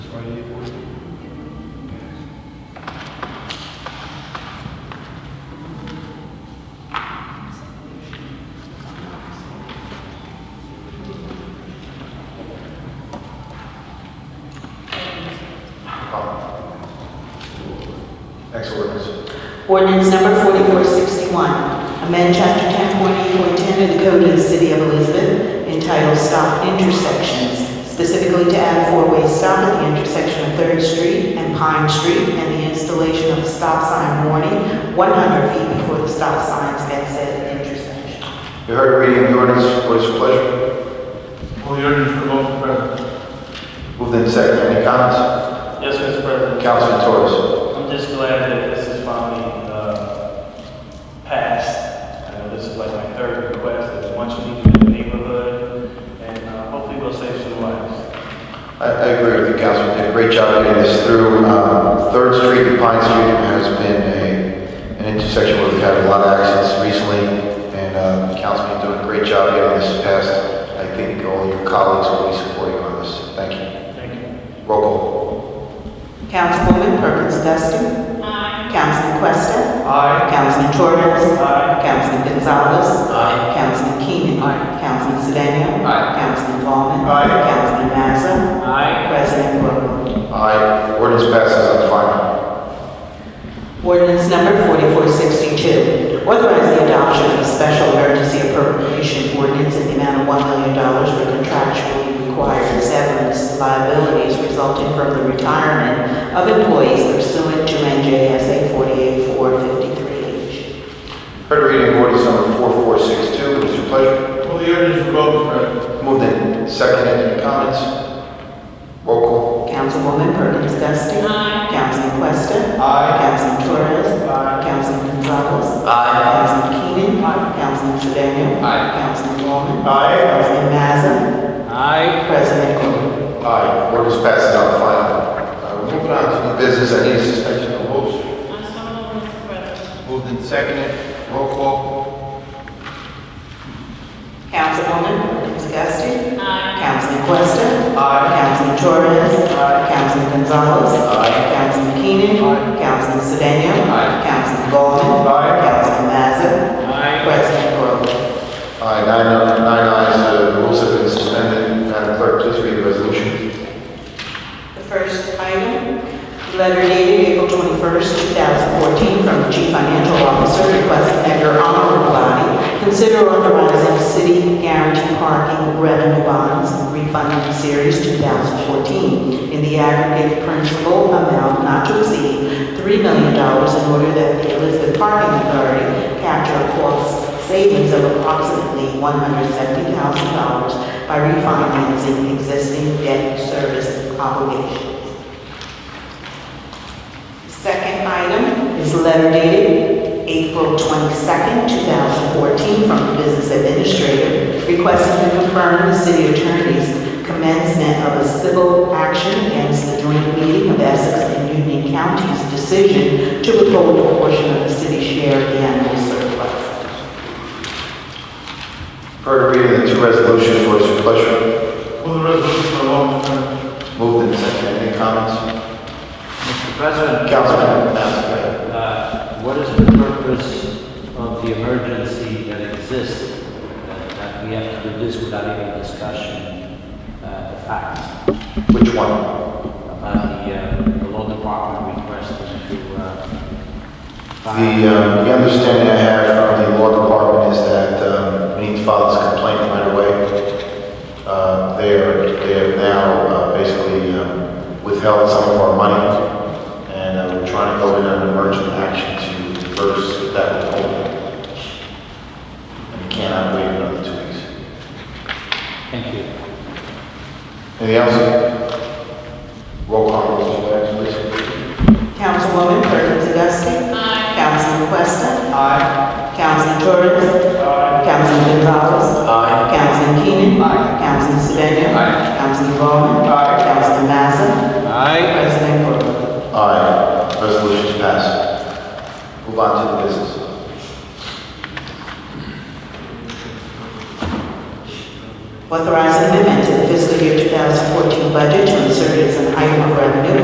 Friday, fourteen. Next ordinance. Ordinance number 4461, amend chapter 10.8.10 of the Code of the City of Elizabeth entitled Stop Intersections, specifically to add a four-way stop at the intersection of Third Street and Pine Street and the installation of a stop sign warning 100 feet before the stop signs at said intersection. You heard the reading of the ordinance, what is your pleasure? Move the ordinance for vote, Mr. President. Moved in second, any comments? Yes, Mr. President. Councilman Torres. I'm just glad that this is finally uh, passed. I know this is like my third request, it's much needed in the neighborhood, and uh, hopefully we'll save some lives. I, I agree with you, Councilman, did a great job getting this through. Um, Third Street and Pine Street has been a, an intersection where we've had a lot of accidents recently, and, uh, Councilman doing a great job getting this passed. I think all your colleagues will be supporting you on this, thank you. Thank you. Roll call. Councilwoman Perkins Dusting. Aye. Councilman Questa. Aye. Councilman Torres. Aye. Councilman Gonzalez. Aye. Councilman Keenan. Aye. Councilman Sedan. Aye. Councilman Ballmer. Aye. Councilman Mazza. Aye. President Corrigan. Aye, ordinance passes on final. Ordinance number 4462, authorize the adoption of a special emergency appropriation ordinance in the amount of $1 million for contractually required severance liabilities resulting from the retirement of employees pursuant to NJSA 48453H. Heard the reading of ordinance number 4462, what is your pleasure? Move the ordinance for vote, Mr. President. Moved in second, any comments? Roll call. Councilwoman Perkins Dusting. Councilman Questa. Aye. Councilman Torres. Councilman Gonzalez. Aye. Councilman Keenan. Councilman Sedan. Councilman Ballmer. Aye. Councilman Mazza. Aye. President Corrigan. Aye, orders passes on final. Uh, we're Moving on to the business, I need a suspension of rules. Moved and seconded, roll call. Councilwoman Perkins Dusting. Councilman Questa. Councilman Torres. Councilman Gonzalez. Councilman Keenan. Councilman Sedan. Councilman Ballmer. Councilman Mazza. President Corrigan. Aye, nine, nine ayes, uh, the rules have been suspended. Madam Clerk, please read the resolution. The first item, letter dated April 21st, 2014, from the Chief Financial Officer requesting that your honorable body consider authorizing city guarantee parking revenue bonds and refunding series 2014 in the aggregate principal amount not to exceed $3 million in order that the Elizabeth Parking Authority capture a cost savings of approximately $170,000 by refinancing existing debt service obligations. Second item is letter dated April 22nd, 2014, from the business administrator requesting to confirm the city attorney's commencement of a civil action against the joint meeting of Essex and Union Counties' decision to withhold a portion of the city's share of the animal surplus. Heard the reading of the two resolutions, what is your pleasure? Move the resolution for vote, Mr. President. Moved and seconded, any comments? Mr. President, Councilman Mazza, go ahead. uh, what is the purpose of the emergency that exists? uh, That we have to do this without even discussion, uh, the facts Which one? about the, uh, the law department requesting to, uh, The, uh, the understanding I have from the law department is that, um, we need to file this complaint right away. Uh, they are, they have now, uh, basically, um, withheld some of our money, and, uh, we're trying to go in an emergent action to reverse that withholding. And we cannot wait another two weeks. Thank you. Anything else? Roll call, Mr. Bags, please. Councilwoman Perkins Dusting. Councilman Questa. Councilman Torres. Councilman Gonzalez. Aye. Councilman Keenan. Councilman Sedan. Councilman Ballmer. Councilman Mazza. President Corrigan. Aye, resolution's passed. Move on to the business. Authorizing amendment to the fiscal year 2014 budget to insert as an item of